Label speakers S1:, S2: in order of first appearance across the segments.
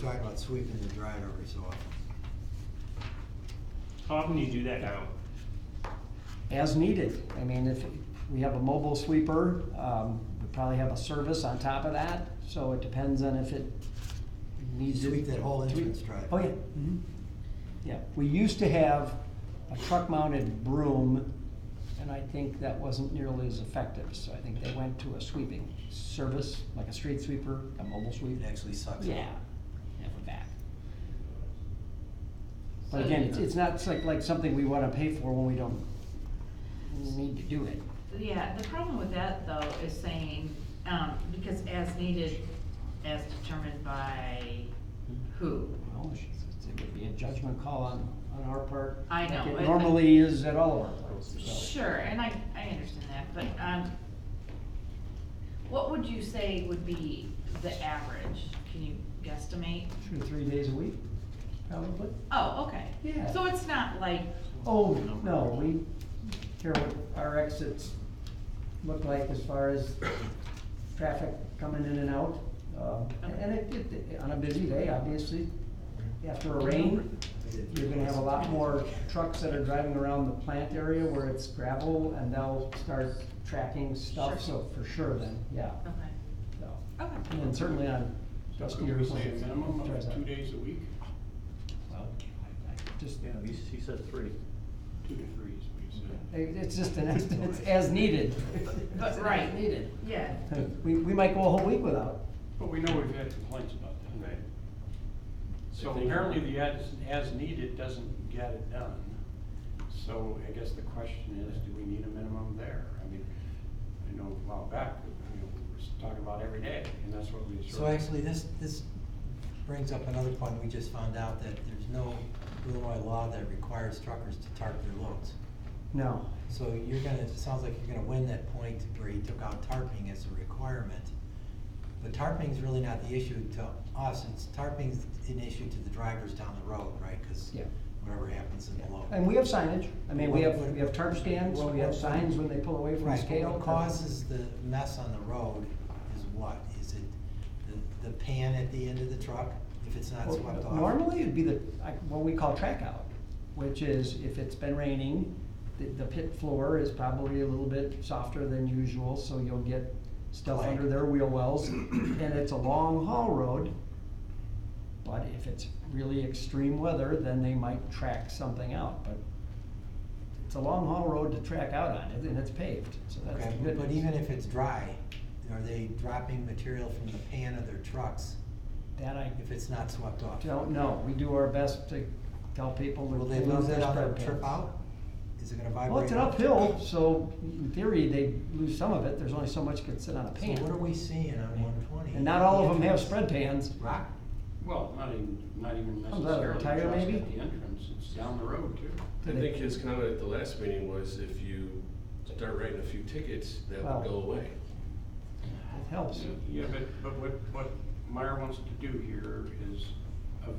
S1: Talk about sweeping the drive every so often.
S2: How often do you do that now?
S3: as needed. I mean, if we have a mobile sweeper, um, we probably have a service on top of that, so it depends on if it needs to.
S1: Sweep that whole entrance drive.
S3: Oh, yeah. mhm. Yeah, we used to have a truck mounted broom, and I think that wasn't nearly as effective, so I think they went to a sweeping service, like a street sweeper, a mobile sweep.
S1: It actually sucks.
S3: Yeah, yeah, we're back. But again, it's, it's not like, like something we wanna pay for when we don't need to do it.
S4: Yeah, the problem with that though is saying, um, because as needed, as determined by who?
S3: Well, it's- it's- It would be a judgment call on, on our part.
S4: I
S3: like
S4: know,
S3: it
S4: I-
S3: normally is at all of our parts, so.
S4: Sure, and I, I understand that, but, um, what would you say would be the average? Can you guesstimate?
S3: Two to three days a week, probably.
S4: Oh, okay.
S3: Yeah.
S4: So it's not like,
S3: Oh, no, we care what our exits look like as far as traffic coming in and out. Um, And it, it- on a busy day, obviously, after a rain, you're gonna have a lot more trucks that are driving around the plant area where it's gravel and they'll start tracking stuff, so for sure then, yeah,
S4: okay,
S3: so.
S4: okay.
S3: And then certainly on
S5: Can
S3: dustier
S5: we say a
S3: places,
S5: minimum
S3: drives
S5: of
S3: up.
S5: two days a week?
S3: Well, I- I Just, uh,
S6: Yeah, he, he said three.
S5: Two to three is what you said.
S3: it- it's just an, it's as needed.
S4: But, right.
S3: Needed.
S4: Yeah,
S3: We, we might go a whole week without.
S5: But we know we've had complaints about that.
S2: Right.
S5: So
S2: I think-
S5: apparently the as, as needed doesn't get it done. So I guess the question is, do we need a minimum there? I mean, I know a while back, you know, we were talking about every day, and that's what we sort of.
S1: So actually, this, this brings up another point, we just found out that there's no Illinois law that requires truckers to tarp their loads.
S3: No.
S1: So you're gonna, it sounds like you're gonna win that point where you took out tarping as a requirement. But tarping's really not the issue to us, it's tarping's an issue to the drivers down the road, right? Cause
S3: Yeah.
S1: whatever happens in the load.
S3: And we have signage. I mean, we have,
S1: What- what-
S3: we have tarp stands, we have signs when they pull away from the
S1: Right, but
S3: scale.
S1: what causes the mess on the road is what? Is it the, the pan at the end of the truck, if it's not
S3: Well,
S1: swept off?
S3: Normally, it'd be the, like, what we call track out, which is if it's been raining, the, the pit floor is probably a little bit softer than usual, so you'll get stuff
S1: Clay.
S3: under their wheel wells, and it's a long haul road. But if it's really extreme weather, then they might track something out, but it's a long haul road to track out on, and it's paved, so that's
S1: Okay,
S3: the
S1: but
S3: good
S1: but
S3: news.
S1: even if it's dry, are they dropping material from the pan of their trucks
S3: That I
S1: if it's not swept off?
S3: don't know, we do our best to tell people to
S1: Will they
S3: lose
S1: lose
S3: their
S1: it on their
S3: spread
S1: trip
S3: pins.
S1: out? Is it gonna vibrate?
S3: Well, it's an
S1: up?
S3: uphill, so in theory, they lose some of it, there's only so much could sit on a
S1: So
S3: pan.
S1: what are we seeing on one twenty?
S3: And not all of them have spread pans,
S1: Rock,
S5: Well, not even, not even
S3: Comes out of their
S5: necessarily just
S3: tire,
S5: at
S3: maybe?
S5: the entrance, it's down the road too.
S7: I think his comment at the last meeting was if you start writing a few tickets, that
S3: Well-
S7: will go away.
S3: it helps.
S5: Yeah, but, but what, what Meyer wants to do here is av-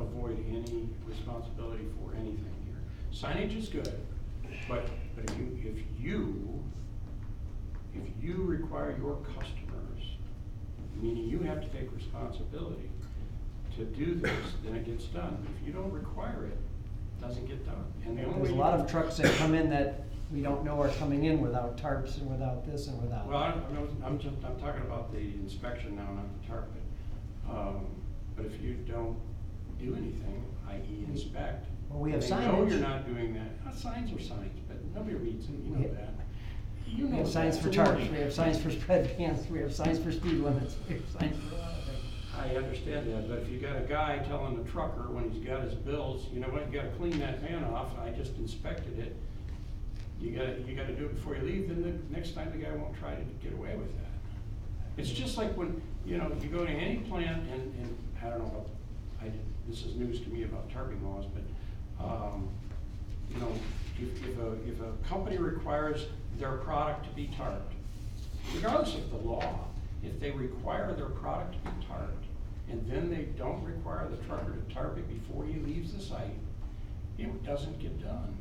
S5: avoid any responsibility for anything here. Signage is good, but, but if you, if you, if you require your customers, meaning you have to take responsibility to do this, then it gets done. If you don't require it, it doesn't get done. And the only
S3: There's
S5: way
S3: a
S5: you
S3: lot
S5: can-
S3: of trucks that come in that we don't know are coming in without tarps and without this and without.
S5: Well, I'm, I'm- I'm just, I'm talking about the inspection now, not the tarp pit. Um, But if you don't do anything, i.e. inspect.
S3: Well, we have
S5: They know
S3: signage.
S5: you're not doing that. Uh, Signs are signs, but nobody reads them, you
S3: We-
S5: know that. You
S3: We
S5: know
S3: have signs
S5: that.
S3: for tarps, we have signs for spread pans, we have signs for speed limits, we have signs for a lot of things.
S5: I understand that, but if you got a guy telling the trucker when he's got his bills, you know what, you gotta clean that van off, I just inspected it. You gotta, you gotta do it before you leave, then the next time the guy won't try to get away with that. It's just like when, you know, you go to any plant and, and, I don't know, about- I, this is news to me about tarping laws, but, um, you know, if, if a, if a company requires their product to be tarped, regardless of the law, if they require their product to be tarped, and then they don't require the trucker to tarp it before he leaves the site, it doesn't get done,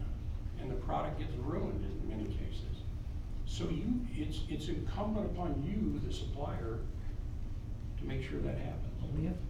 S5: and the product gets ruined in many cases. So you, it's, it's incumbent upon you, the supplier, to make sure that happens.
S3: We have